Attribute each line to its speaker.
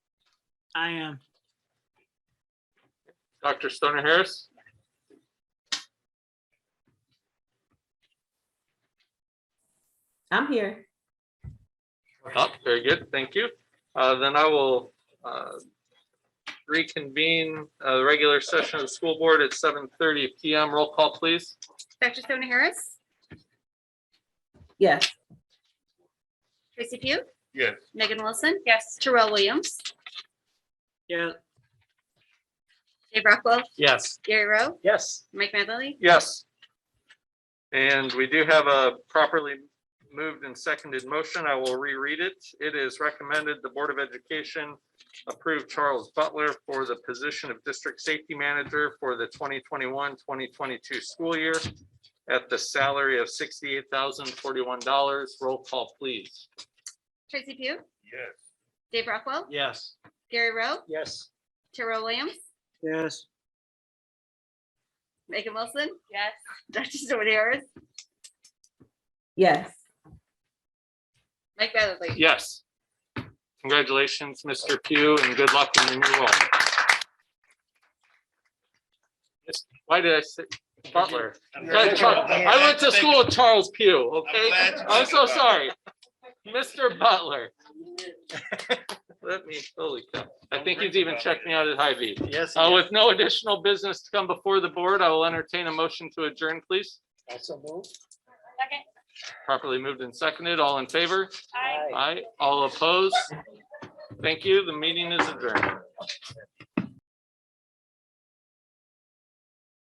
Speaker 1: I am.
Speaker 2: Dr. Stoner Harris?
Speaker 3: I'm here.
Speaker 2: Oh, very good, thank you. Uh, Then I will uh, reconvene uh, the regular session of the school board at 7:30 PM. Roll call, please.
Speaker 4: Dr. Stone Harris,
Speaker 3: Yes.
Speaker 4: Tracy Pugh,
Speaker 2: Yes.
Speaker 4: Megan Wilson. Yes. Terrell Williams,
Speaker 1: Yeah.
Speaker 4: Dave Rockwell,
Speaker 2: Yes.
Speaker 4: Gary Rowe,
Speaker 1: Yes.
Speaker 4: Mike Madley.
Speaker 2: Yes. And we do have a properly moved and seconded motion. I will reread it. It is recommended the Board of Education approve Charles Butler for the position of District Safety Manager for the 2021, 2022 school year at the salary of $68,041. Roll call, please.
Speaker 4: Tracy Pugh,
Speaker 2: Yes.
Speaker 4: Dave Rockwell,
Speaker 1: Yes.
Speaker 4: Gary Rowe,
Speaker 1: Yes.
Speaker 4: Terrell Williams,
Speaker 1: Yes.
Speaker 4: Megan Wilson. Yes. Dr. Stone Harris,
Speaker 3: Yes.
Speaker 4: Mike Madley.
Speaker 2: Yes. Congratulations, Mr. Pugh, and good luck in your new role. Why did I say Butler? Yeah, Char- I went to school with Charles Pugh, okay?
Speaker 5: glad you
Speaker 2: I'm so
Speaker 5: went to
Speaker 2: sorry. Mr. Butler. Let me, holy cow. I think he's even checked me out at Hy-Vee.
Speaker 1: Yes.
Speaker 2: Uh, with no additional business to come before the board, I will entertain a motion to adjourn, please.
Speaker 1: Also move.
Speaker 2: Properly moved and seconded. All in favor? Aye. All opposed? Thank you. The meeting is adjourned.